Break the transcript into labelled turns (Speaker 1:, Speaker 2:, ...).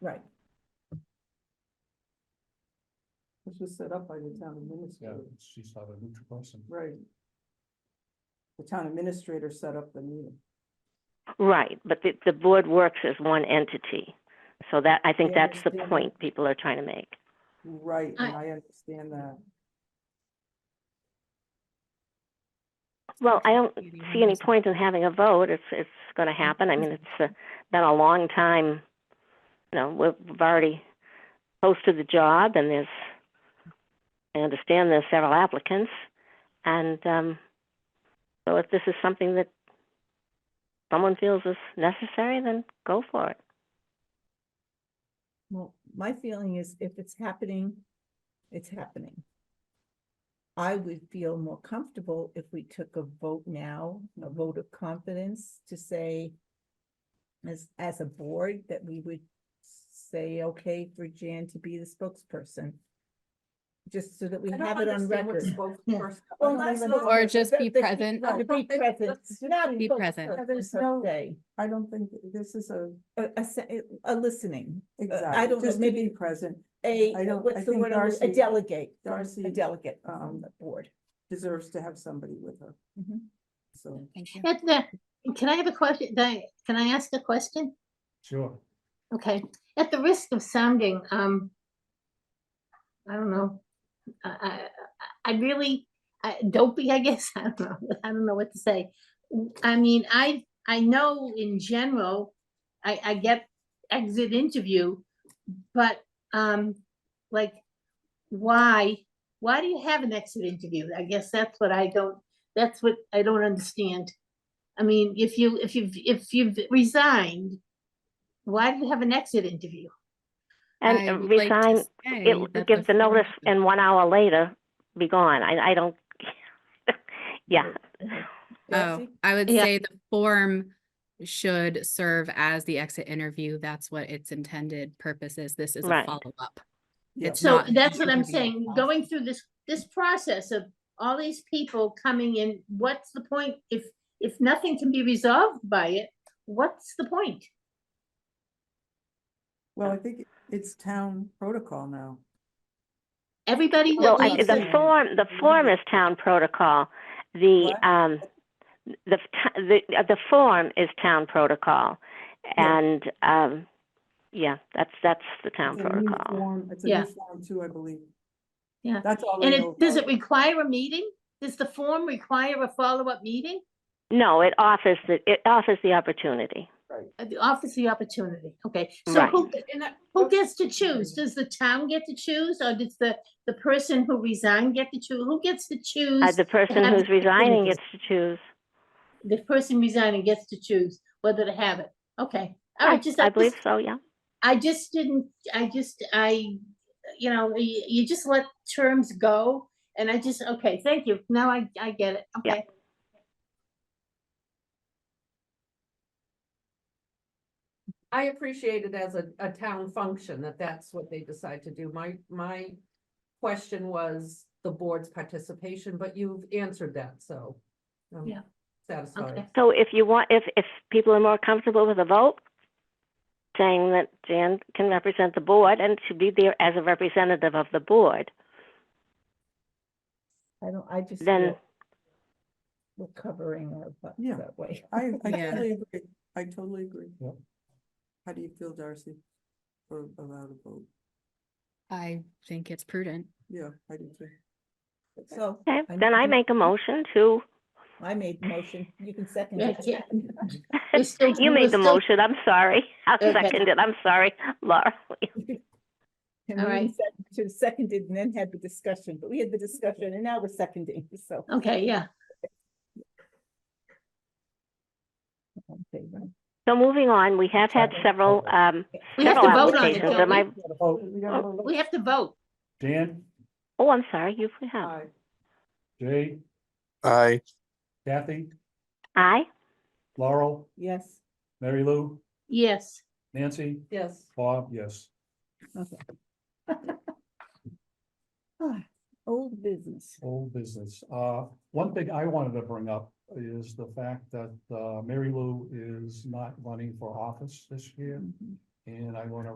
Speaker 1: Right.
Speaker 2: This was set up by the town
Speaker 3: Yeah,
Speaker 2: administrator,
Speaker 3: she's not a neutral person.
Speaker 2: right? The town administrator set up the meeting.
Speaker 4: Right, but the, the board works as one entity. So that, I think
Speaker 2: I
Speaker 4: that's the
Speaker 2: understand that.
Speaker 4: point people are trying to make.
Speaker 2: Right, and
Speaker 1: I-
Speaker 2: I understand that.
Speaker 4: Well, I don't
Speaker 1: Maybe
Speaker 4: see any
Speaker 1: one's-
Speaker 4: point in having a vote. It's, it's going to happen. I mean, it's uh, been a long time. You know, we've we've already posted the job and there's, I understand there's several applicants. And, um, so if this is something that someone feels is necessary, then go for it.
Speaker 1: Well, my feeling is if it's happening, it's happening. I would feel more comfortable if we took a vote now, a vote of confidence to say as, as a board, that we would say, okay, for Jan to be the spokesperson. Just so that we
Speaker 2: I don't
Speaker 1: have it on
Speaker 2: understand what
Speaker 1: record.
Speaker 2: spokesperson-
Speaker 1: Well,
Speaker 2: I don't
Speaker 1: not spoke-
Speaker 2: even-
Speaker 5: Or just
Speaker 1: the-
Speaker 5: be
Speaker 1: the-
Speaker 5: present.
Speaker 1: no, Be present, not
Speaker 5: Be present.
Speaker 1: spokesperson
Speaker 2: There's
Speaker 1: per
Speaker 2: no-
Speaker 1: se.
Speaker 2: I don't think this is a,
Speaker 1: A, a, se- a listening,
Speaker 2: exactly,
Speaker 1: don't know,
Speaker 2: just to
Speaker 1: maybe-
Speaker 2: be present
Speaker 1: a,
Speaker 2: I don't- I
Speaker 1: what's the
Speaker 2: think
Speaker 1: word, I'm-
Speaker 2: Darcy-
Speaker 1: a delegate,
Speaker 2: Darcy,
Speaker 1: a delegate
Speaker 2: um,
Speaker 1: on the board.
Speaker 2: deserves to have somebody with her,
Speaker 1: Mhm.
Speaker 2: so.
Speaker 5: Thank you.
Speaker 6: At the, can I have a question? Di- Can I ask a question?
Speaker 3: Sure.
Speaker 6: Okay, at the risk of sounding, um, I don't know. I, I- I, I really, I, dopey, I guess, I don't know, I don't know what to say. I mean, I, I know in general, I, I get exit interview, but, um, like, why, why do you have an exit interview? I guess that's what I don't, that's what I don't understand. I mean, if you, if you've, if you've resigned, why do you have an exit interview?
Speaker 4: And
Speaker 5: I
Speaker 4: uh,
Speaker 5: would like to
Speaker 4: resign,
Speaker 5: say
Speaker 4: it
Speaker 5: that
Speaker 4: gives the notice
Speaker 5: first-
Speaker 4: and one hour later, be gone. I, I don't, yeah.
Speaker 5: Oh,
Speaker 2: Darcy?
Speaker 5: I would
Speaker 4: Yeah.
Speaker 5: say the form should serve as the exit interview. That's what its intended purpose is. This is a
Speaker 4: Right.
Speaker 5: follow-up.
Speaker 2: Yeah.
Speaker 5: It's
Speaker 6: So
Speaker 5: not an
Speaker 6: that's what I'm
Speaker 5: interview.
Speaker 6: saying, going through this, this process of all these people coming in, what's the point? If, if nothing can be resolved by it, what's the point?
Speaker 2: Well, I think it's town protocol now.
Speaker 6: Everybody
Speaker 4: Well,
Speaker 6: that
Speaker 4: I,
Speaker 6: leaves,
Speaker 4: the
Speaker 6: the-
Speaker 4: form, the form is town protocol. The,
Speaker 2: What?
Speaker 4: um, the, t- the, uh, the form is town protocol.
Speaker 2: Yeah.
Speaker 4: And, um, yeah, that's, that's the town
Speaker 2: It's a new
Speaker 4: protocol.
Speaker 2: form- It's a
Speaker 6: Yeah.
Speaker 2: new form too, I believe.
Speaker 6: Yeah.
Speaker 2: That's all I
Speaker 6: and
Speaker 2: know.
Speaker 6: it, does
Speaker 2: about
Speaker 6: it require a meeting? Does the form require a follow-up meeting?
Speaker 4: No, it offers the, it offers the opportunity.
Speaker 6: Uh, The office the opportunity, okay, so
Speaker 4: Right.
Speaker 6: who, uh,
Speaker 1: And I-
Speaker 6: who gets to choose? Does the town get to choose, or does the, the person who resigned get to choose? Who gets to choose?
Speaker 4: Uh, the person
Speaker 6: have
Speaker 4: who's
Speaker 6: the
Speaker 4: resigning
Speaker 6: opportunity.
Speaker 4: gets to choose.
Speaker 6: the person resigning gets to choose whether to have it. Okay. All
Speaker 4: I,
Speaker 6: right, just,
Speaker 4: I
Speaker 6: I
Speaker 4: believe
Speaker 6: just,
Speaker 4: so, yeah.
Speaker 6: I just didn't, I just, I, you know, you, you just let terms go. And I just, okay, thank you. Now I, I get it.
Speaker 4: Yeah.
Speaker 6: Okay.
Speaker 7: I appreciate it as a, a town function that that's what they decide to do. My, my question was the board's participation, but you've answered that, so. Um, I'm
Speaker 6: Yeah.
Speaker 7: Satisfied.
Speaker 6: Okay.
Speaker 4: So if you want, if, if people are more comfortable with a vote, saying that Jan can represent the board and should be there as a representative of the board,
Speaker 1: I don't, I just
Speaker 4: Then-
Speaker 1: feel we're covering our butts
Speaker 2: Yeah.
Speaker 1: that way.
Speaker 2: I, I
Speaker 5: Yeah.
Speaker 2: totally agree. I totally agree.
Speaker 3: Yep.
Speaker 2: How do you feel, Darcy? For about a vote?
Speaker 5: I think it's prudent.
Speaker 2: Yeah, I do too.
Speaker 1: So
Speaker 4: okay,
Speaker 1: I
Speaker 4: then I
Speaker 1: mean-
Speaker 4: make a motion to,
Speaker 1: I made the motion, you can second
Speaker 6: Yeah,
Speaker 1: it.
Speaker 6: yeah. We're still-
Speaker 4: you
Speaker 6: we're
Speaker 4: made the
Speaker 6: still-
Speaker 4: motion, I'm sorry. I'll
Speaker 6: Okay.
Speaker 4: second it, I'm sorry, Laura.
Speaker 1: And
Speaker 6: All
Speaker 1: we
Speaker 6: right.
Speaker 1: sec- To seconded and then had the discussion, but we had the discussion and now we're seconding, so.
Speaker 6: Okay, yeah.
Speaker 1: all in favor?
Speaker 4: So moving on, we have had
Speaker 3: Second.
Speaker 4: several, um,
Speaker 6: We have to
Speaker 4: several
Speaker 6: vote on it,
Speaker 4: applications. Am I,
Speaker 6: don't we?
Speaker 3: Oh,
Speaker 6: We have to vote.
Speaker 3: Dan,
Speaker 4: oh, I'm sorry, you we have.
Speaker 2: Aye.
Speaker 3: Jay,
Speaker 8: Aye.
Speaker 3: Kathy,
Speaker 4: Aye?
Speaker 3: Laurel,
Speaker 1: Yes,
Speaker 3: Mary Lou,
Speaker 6: Yes.
Speaker 3: Nancy,
Speaker 7: Yes.
Speaker 3: Bob, yes.
Speaker 1: okay. Ah, Old business.
Speaker 3: Old business. Uh, one thing I wanted to bring up is the fact that, uh, Mary Lou is not running for office this year.
Speaker 1: Mhm.
Speaker 3: And I wanna